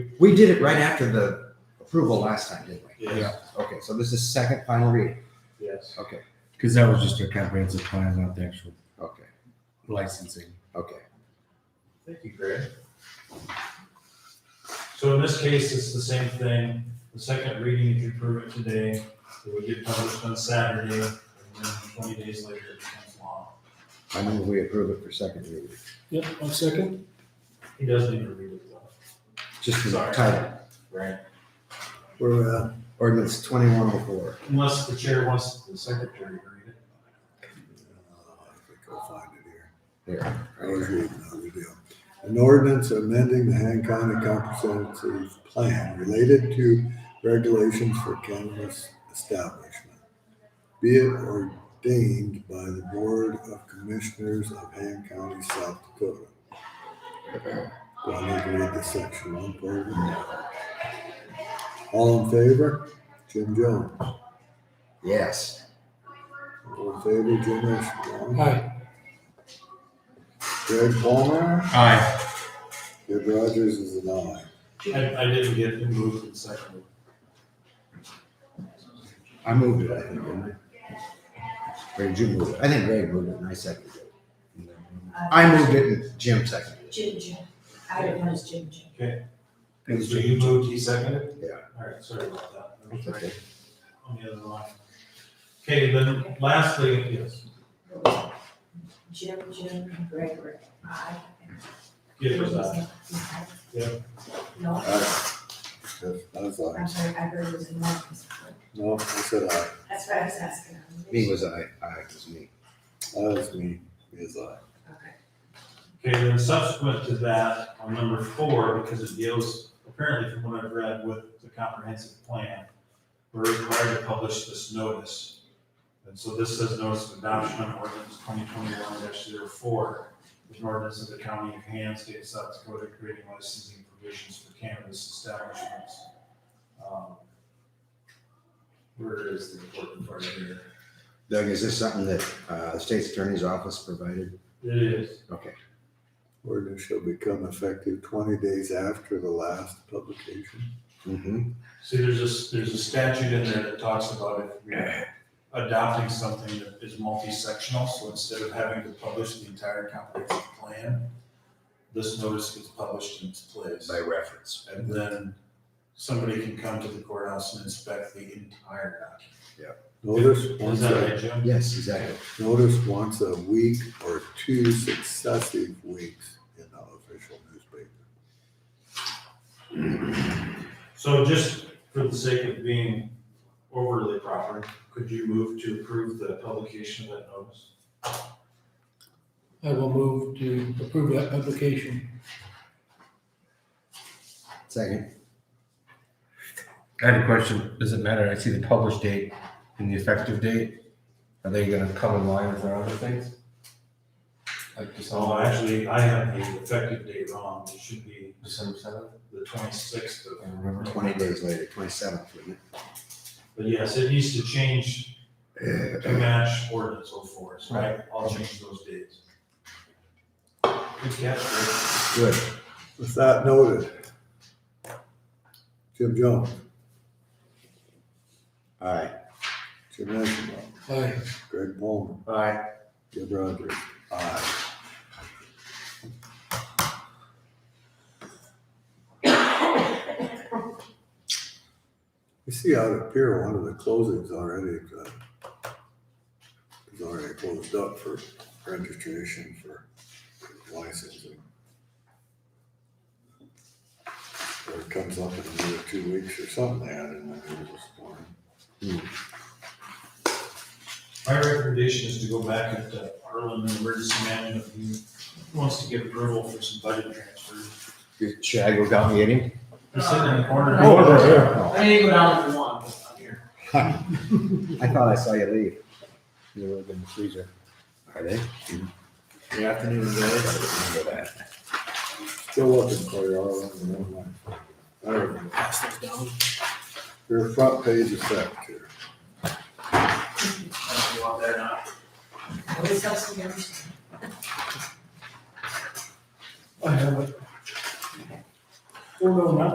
We did it right after the approval last time, didn't we? Yeah. Okay, so this is second final reading. Yes. Okay, Because that was just a comprehensive plan, not the actual okay, licensing. okay. Thank you, Greg. So in this case, it's the same thing. The second reading, if you approve it today, it would get published on Saturday, and then twenty days later, it becomes law. I move we approve it for second reading. Yep, I'll second. He does need to read it though. Just for the Sorry. title, Right. we're, uh, ordinance twenty-one oh four. Unless the chair wants the secretary to read it. I'll find it here. Here. I was reading on the deal. An ordinance amending the Han County Comprehensive Plan related to regulations for cannabis establishment. Be it ordained by the Board of Commissioners of Han County, South Dakota. Do I need to read the section one part? All in favor? Jim Jones. Yes, All in favor, Jim Ashenbaum. Aye. Greg Palmer. Aye. Dave Rogers is an aye. I, I didn't get it moved and seconded. I moved it, I think, didn't I? Or did you move it? I think Greg moved it and I seconded it. I moved it and Jim seconded it. Jim Jim. Uh, I don't know, it's Jim Jim. So you moved, he seconded? Yeah. All right, sorry about that. That was That's right okay. On the other line. Okay, then lastly, yes, Jim Jim and Gregory. I. give us that. Yeah. No, Aye. That's, that's aye. I'm sorry, I heard it was in Marcus. No, I said aye. That's what I was asking. Me was I, I was me. Aye is me, is aye. Okay. Okay, then subsequent to that, on number four, because it deals, apparently from what I've read, with the comprehensive plan, we're required to publish this notice. And so this says notice of adoption of ordinance twenty twenty-one 4 an ordinance of the county of Han, state of South Dakota, creating licensing provisions for cannabis establishments. Um, Where is the important part here? Doug, is this something that, uh, the state's attorney's office provided? It is. Okay, Ordinance shall become effective twenty days after the last publication. mm-hmm, See, there's a, there's a statute in there that talks about if you're adopting something that is multi-sectional, so instead of having to publish the entire comprehensive plan, this notice gets published in its place. by reference. And then somebody can come to the courthouse and inspect the entire Notice document. Is once that a, right, Jim? Yes, exactly. notice once a week or two successive weeks in the official newspaper. So just for the sake of being overly proper, could you move to approve the publication of that notice? I will move to approve that application. Second, I had a question. Does it matter? I see the published date and the effective date. Are they gonna come in line with our other things? Like So December, Oh, actually, I have the effective date wrong, it should be December seventh? the twenty-sixth of I don't remember. twenty days later, twenty-seventh, wouldn't But yes, it needs to change it? to match ordinance oh four, so I- I'll change those dates. Good catch, Rick. Good. With that noted, Jim Jones, All right. Jim Ashenbaum, Aye. Greg Palmer, All right. Dave Rogers, aye. You see out at Pier, one of the closings already, uh, is already closed up for registration for licensing. Or it comes up in another two weeks or something, I didn't know this morning. My recommendation is to go back at uh, Arlen and Emergency Management, who wants to get approval for some budget transfers. Should I go down and get him? He's sitting in the corner. Oh. I need to go down if you want, but I'm here. I thought I saw you leave. You were in the freezer. Are they? Good afternoon, guys. Remember that. Still up in Colorado, I don't know. I don't know. Your front page is back here. I don't know if you want that or not. Always helps to understand. I have it. Four oh nine.